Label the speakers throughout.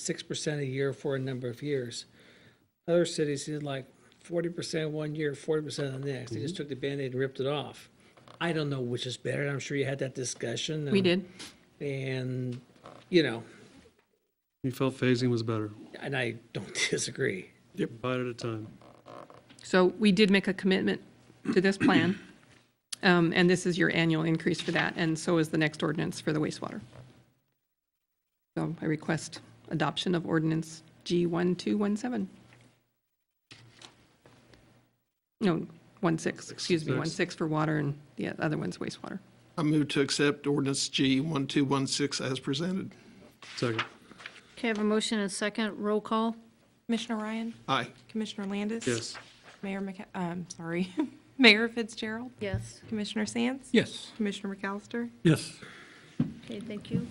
Speaker 1: six percent a year for a number of years. Other cities did like forty percent one year, forty percent the next. They
Speaker 2: Mm-hmm.
Speaker 1: just took the Band-Aid and ripped it off. I don't know which is better. I'm sure you had that discussion.
Speaker 3: We
Speaker 1: and-
Speaker 3: did.
Speaker 1: And, you know,
Speaker 4: We felt phasing was better,
Speaker 1: and I don't disagree.
Speaker 4: bite at a time.
Speaker 3: So we did make a commitment to this plan, um, and this is your annual increase for that, and so is the next ordinance for the wastewater. So I request adoption of ordinance G1217. No, 16, excuse me, 16 for water and the other one's wastewater.
Speaker 5: I move to accept ordinance G 1216 as presented.
Speaker 4: Second,
Speaker 6: Okay, I have a motion and a second. Roll call?
Speaker 7: Commissioner Ryan?
Speaker 5: Aye.
Speaker 7: Commissioner Landis?
Speaker 4: yes.
Speaker 7: Mayor McC, um, sorry, Mayor Fitzgerald?
Speaker 6: Yes.
Speaker 7: Commissioner Sands?
Speaker 2: Yes.
Speaker 7: Commissioner McAllister?
Speaker 2: Yes.
Speaker 6: Okay, thank you.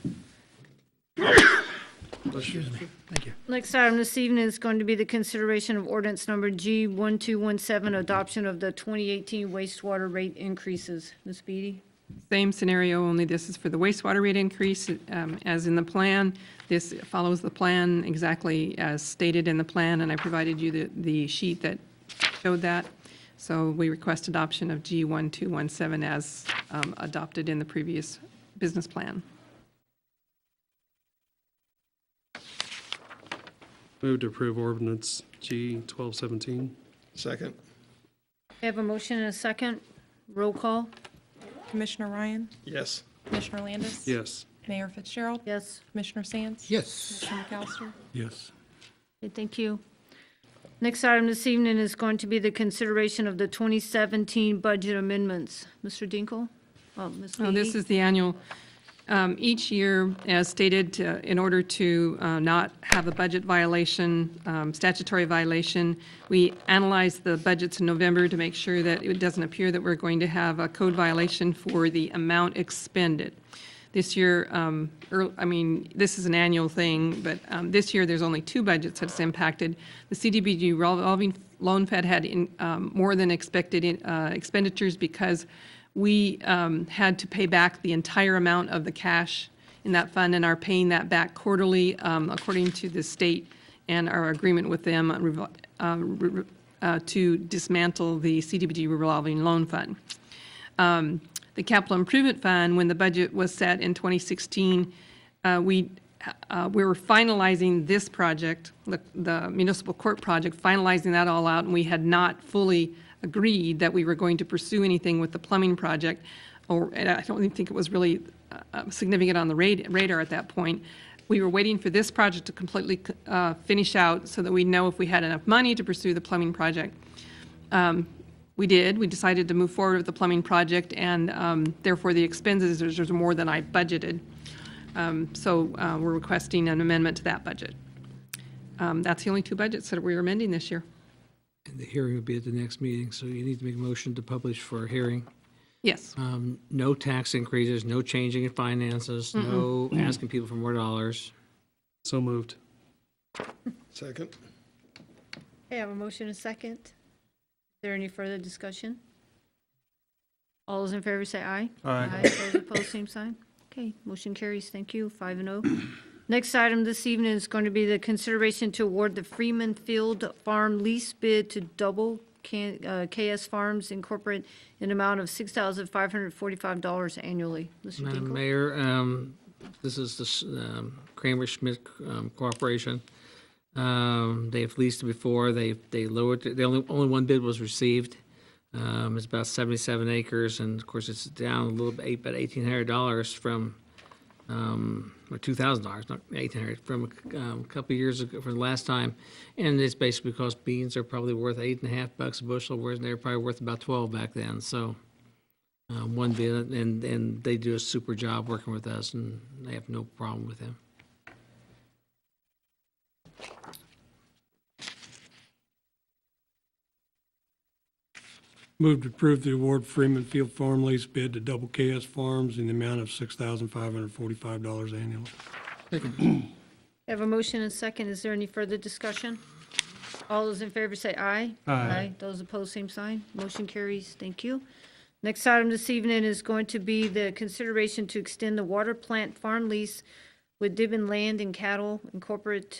Speaker 2: Excuse me. Thank you.
Speaker 6: Next item this evening is going to be the consideration of ordinance number G 1217, adoption of the 2018 wastewater rate increases. Ms. Beatty?
Speaker 3: Same scenario, only this is for the wastewater rate increase. um, As in the plan, this follows the plan exactly as stated in the plan, and I provided you the the sheet that showed that. So we request adoption of G1217 as um, adopted in the previous business plan.
Speaker 4: Move to approve ordinance G 1217.
Speaker 5: Second.
Speaker 6: I have a motion and a second. Roll call?
Speaker 7: Commissioner Ryan?
Speaker 5: Yes.
Speaker 7: Commissioner Landis?
Speaker 4: Yes.
Speaker 7: Mayor Fitzgerald?
Speaker 6: Yes.
Speaker 7: Commissioner Sands?
Speaker 2: Yes.
Speaker 7: Commissioner McAllister?
Speaker 2: Yes.
Speaker 6: Okay, thank you. Next item this evening is going to be the consideration of the 2017 budget amendments. Mr. Dinkle? Oh, Ms. Beatty?
Speaker 3: No, this is the annual. Um, Each year, as stated, uh, in order to uh, not have a budget violation, um, statutory violation, we analyze the budgets in November to make sure that it doesn't appear that we're going to have a code violation for the amount expended. This year, um, earl- I mean, this is an annual thing, but um, this year, there's only two budgets that's impacted. The CDBG revolving loan fed had in, um, more than expected in- uh, expenditures because we um, had to pay back the entire amount of the cash in that fund and are paying that back quarterly um, according to the state and our agreement with them on revol- uh, re- re- uh, to dismantle the CDBG revolving loan fund um, the capital improvement fund, when the budget was set in 2016, uh, we, uh, we were finalizing this project, the- the municipal court project, finalizing that all out, and we had not fully agreed that we were going to pursue anything with the plumbing project, or, and I don't even think it was really uh, uh, significant on the rad- radar at that point. We were waiting for this project to completely uh, finish out so that we know if we had enough money to pursue the plumbing project. We did. We decided to move forward with the plumbing project, and um, therefore the expenses is is more than I budgeted. Um, So uh, we're requesting an amendment to that budget. Um, That's the only two budgets that we're amending this year.
Speaker 2: And the hearing would be at the next meeting, so you need to make a motion to publish for a hearing.
Speaker 3: Yes.
Speaker 2: Um, No tax increases, no changing in finances, no asking people for more dollars.
Speaker 4: So moved.
Speaker 5: Second.
Speaker 6: Okay, I have a motion and a second. Is there any further discussion? All those in favor say aye. Aye. Those opposed, same sign. Okay, motion carries. Thank you, five and oh. Next item this evening is going to be the consideration to award the Freeman Field Farm lease bid to Double K- uh, KS Farms Incorporated in amount of $6,545 annually. Mr.
Speaker 2: Madam
Speaker 6: Dinkle?
Speaker 2: Mayor, um, this is the s- um, Kramer Schmidt um, Corporation. Um, They've leased it before, they, they lowered, it. the only, only one bid was received. Um, It's about 77 acres, and of course, it's down a little bit, about $1,800 from, um, or $2,000, not 1,800, from um, a couple of years ago, from the last time. And it's basically because beans are probably worth eight and a half bucks a bushel, whereas they were probably worth about 12 back then, so uh, one bid, and, and they do a super job working with us, and I have no problem with them.
Speaker 8: Move to approve the award Freeman Field Farm lease bid to Double KS Farms in the amount of $6,545 annually.
Speaker 6: I have a motion and second. Is there any further discussion? All those in favor say aye. Aye. Those opposed, same sign. Motion carries. Thank you. Next item this evening is going to be the consideration to extend the water plant farm lease with Dibben Land and Cattle Incorporated